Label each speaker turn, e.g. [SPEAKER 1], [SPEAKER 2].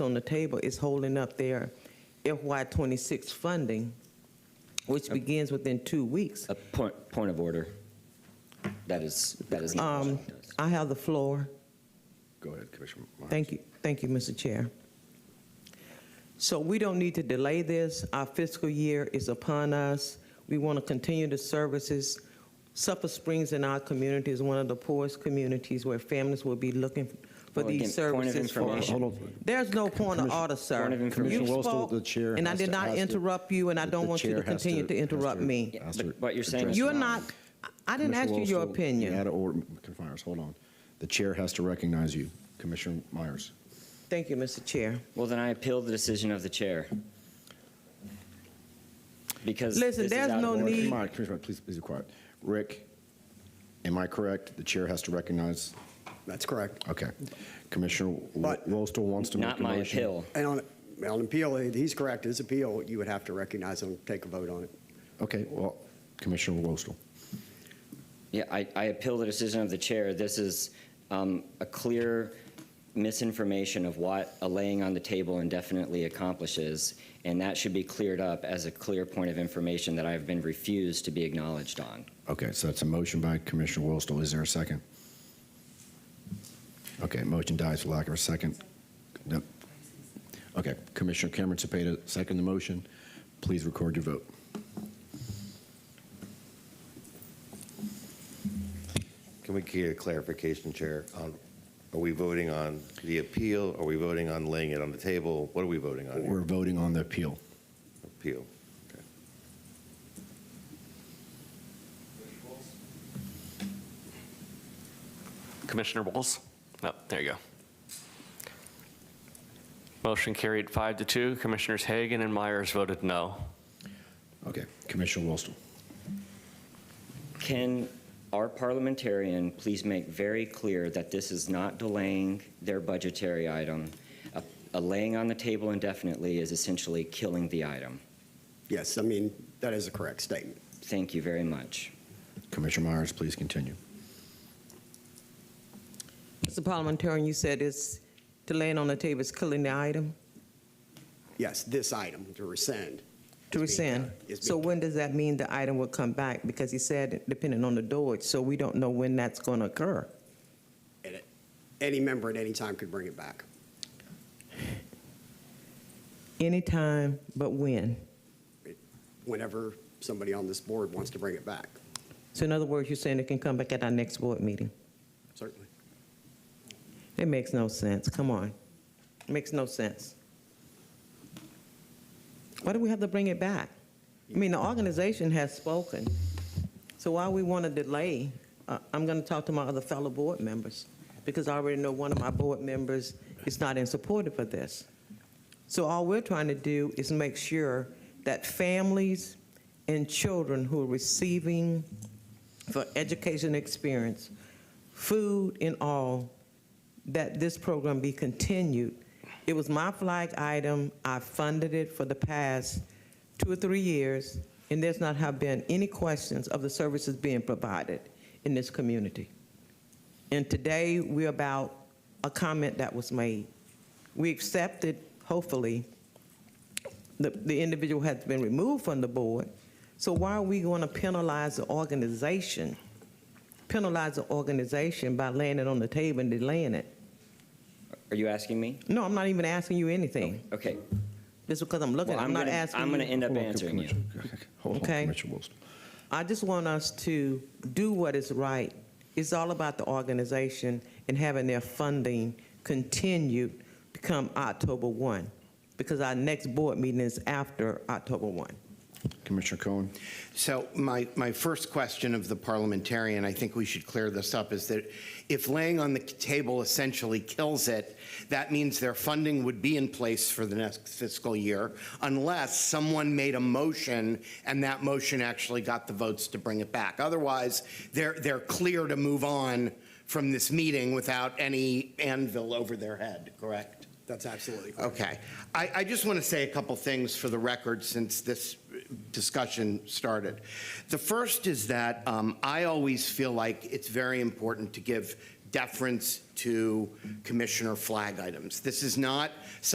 [SPEAKER 1] on the table is holding up their FY '26 funding, which begins within two weeks.
[SPEAKER 2] A point, point of order. That is, that is not
[SPEAKER 1] Um,
[SPEAKER 2] what Sean does.
[SPEAKER 1] I have the floor.
[SPEAKER 3] Go ahead, Commissioner Myers.
[SPEAKER 1] Thank you, thank you, Mr. Chair. So we don't need to delay this. Our fiscal year is upon us. We want to continue the services. Suffolk Springs in our community is one of the poorest communities where families will be looking for
[SPEAKER 2] Well, again,
[SPEAKER 1] these
[SPEAKER 2] point of
[SPEAKER 1] services. for-
[SPEAKER 2] information.
[SPEAKER 3] Hold on.
[SPEAKER 1] There's no point of
[SPEAKER 3] Commissioner-
[SPEAKER 1] order, sir.
[SPEAKER 2] Point of information.
[SPEAKER 1] You
[SPEAKER 3] Commissioner Westall,
[SPEAKER 1] spoke,
[SPEAKER 3] the chair
[SPEAKER 1] And I
[SPEAKER 3] has
[SPEAKER 1] did
[SPEAKER 3] to-
[SPEAKER 1] not
[SPEAKER 3] has to-
[SPEAKER 1] interrupt you, and I
[SPEAKER 3] the
[SPEAKER 1] don't want you to
[SPEAKER 3] chair has
[SPEAKER 1] continue to
[SPEAKER 3] has
[SPEAKER 1] interrupt me.
[SPEAKER 2] Yeah,
[SPEAKER 3] has
[SPEAKER 2] but
[SPEAKER 3] to
[SPEAKER 2] what you're saying
[SPEAKER 3] address
[SPEAKER 2] is-
[SPEAKER 1] You're
[SPEAKER 3] the
[SPEAKER 1] not,
[SPEAKER 3] matter.
[SPEAKER 1] I didn't ask
[SPEAKER 3] Commissioner
[SPEAKER 1] you your
[SPEAKER 3] Westall, You had
[SPEAKER 1] opinion.
[SPEAKER 3] an order, Commissioner Myers, hold on. The chair has to recognize you, Commissioner Myers.
[SPEAKER 1] Thank you, Mr. Chair.
[SPEAKER 2] Well, then I appeal the decision of the chair. Because
[SPEAKER 1] Listen,
[SPEAKER 2] this is
[SPEAKER 1] there's
[SPEAKER 2] out of
[SPEAKER 1] no
[SPEAKER 2] order.
[SPEAKER 1] need-
[SPEAKER 3] Commissioner Myers, Commissioner Myers, please, please be quiet. Rick, am I correct? The chair has to recognize,
[SPEAKER 4] That's correct.
[SPEAKER 3] okay. Commissioner
[SPEAKER 4] But-
[SPEAKER 3] Wostel wants to make
[SPEAKER 2] Not
[SPEAKER 3] a
[SPEAKER 2] my
[SPEAKER 3] motion.
[SPEAKER 2] appeal.
[SPEAKER 4] And on, on appeal, he's correct, his appeal, you would have to recognize him, take a vote on it.
[SPEAKER 3] Okay, well, Commissioner Wostel.
[SPEAKER 2] Yeah, I, I appeal the decision of the chair. This is um, a clear misinformation of what a laying on the table indefinitely accomplishes, and that should be cleared up as a clear point of information that I've been refused to be acknowledged on.
[SPEAKER 3] Okay, so that's a motion by Commissioner Wostel. Is there a second? Okay, motion dies for lack of a second. Yep. Okay, Commissioner Cameron Cepeda, second the motion. Please record your vote.
[SPEAKER 5] Can we get a clarification, Chair? on- Are we voting on the appeal? Are we voting on laying it on the table? What are we voting on
[SPEAKER 3] We're
[SPEAKER 5] here?
[SPEAKER 3] voting on the appeal.
[SPEAKER 5] Appeal.
[SPEAKER 6] Commissioner Bowles? Oh, there you go. Motion carried five to two. Commissioners Hagan and Myers voted no.
[SPEAKER 3] Okay, Commissioner Wostel.
[SPEAKER 2] Can our parliamentarian please make very clear that this is not delaying their budgetary item? A- A laying on the table indefinitely is essentially killing the item.
[SPEAKER 4] Yes, I mean, that is a correct statement.
[SPEAKER 2] Thank you very much.
[SPEAKER 3] Commissioner Myers, please continue.
[SPEAKER 1] Mr. Parliamentarian, you said it's, delaying on the table is killing the item
[SPEAKER 4] Yes, this item, to rescind.
[SPEAKER 1] to
[SPEAKER 4] is being
[SPEAKER 1] rescind.
[SPEAKER 4] done- is
[SPEAKER 1] So
[SPEAKER 4] being-
[SPEAKER 1] when does that mean the item will come back? Because he said depending on the Dodge, so we don't know when that's going to occur.
[SPEAKER 4] and it- Any member at any time could bring it back.
[SPEAKER 1] Anytime, but when?
[SPEAKER 4] Whenever somebody on this board wants to bring it back,
[SPEAKER 1] So in other words, you're saying it can come back at our next board meeting?
[SPEAKER 4] certainly.
[SPEAKER 1] It makes no sense. Come on. Makes no sense. Why do we have to bring it back? I mean, the organization has spoken. So why we want to delay? Uh, I'm going to talk to my other fellow board members because I already know one of my board members is not in support of this. So all we're trying to do is make sure that families and children who are receiving for education experience, food and all, that this program be continued. It was my flag item. I funded it for the past two or three years, and there's not have been any questions of the services being provided in this community. And today, we're about a comment that was made. We accepted, hopefully, the, the individual has been removed from the board, so why are we going to penalize the organization? Penalize the organization by laying it on the table and delaying it?
[SPEAKER 2] Are you asking me?
[SPEAKER 1] No, I'm not even asking you anything.
[SPEAKER 2] Okay.
[SPEAKER 1] Just because I'm looking,
[SPEAKER 2] Well,
[SPEAKER 1] I'm not
[SPEAKER 2] gonna-
[SPEAKER 1] asking.
[SPEAKER 2] I'm going to
[SPEAKER 1] you.
[SPEAKER 2] end up
[SPEAKER 3] Hold on,
[SPEAKER 2] answering you.
[SPEAKER 3] Commissioner- Hold on,
[SPEAKER 1] Okay.
[SPEAKER 3] Commissioner Wostel.
[SPEAKER 1] I just want us to do what is right. It's all about the organization and having their funding continued to come October 1, because our next board meeting is after October 1.
[SPEAKER 3] Commissioner Cohen,
[SPEAKER 7] So my, my first question of the parliamentarian, I think we should clear this up, is that if laying on the table essentially kills it, that means their funding would be in place for the next fiscal year unless someone made a motion and that motion actually got the votes to bring it back. Otherwise, they're, they're clear to move on from this meeting without any anvil over their head, correct?
[SPEAKER 4] That's absolutely correct.
[SPEAKER 7] Okay. I, I just want to say a couple things for the record since this discussion started. The first is that um, I always feel like it's very important to give deference to commissioner flag items. This is not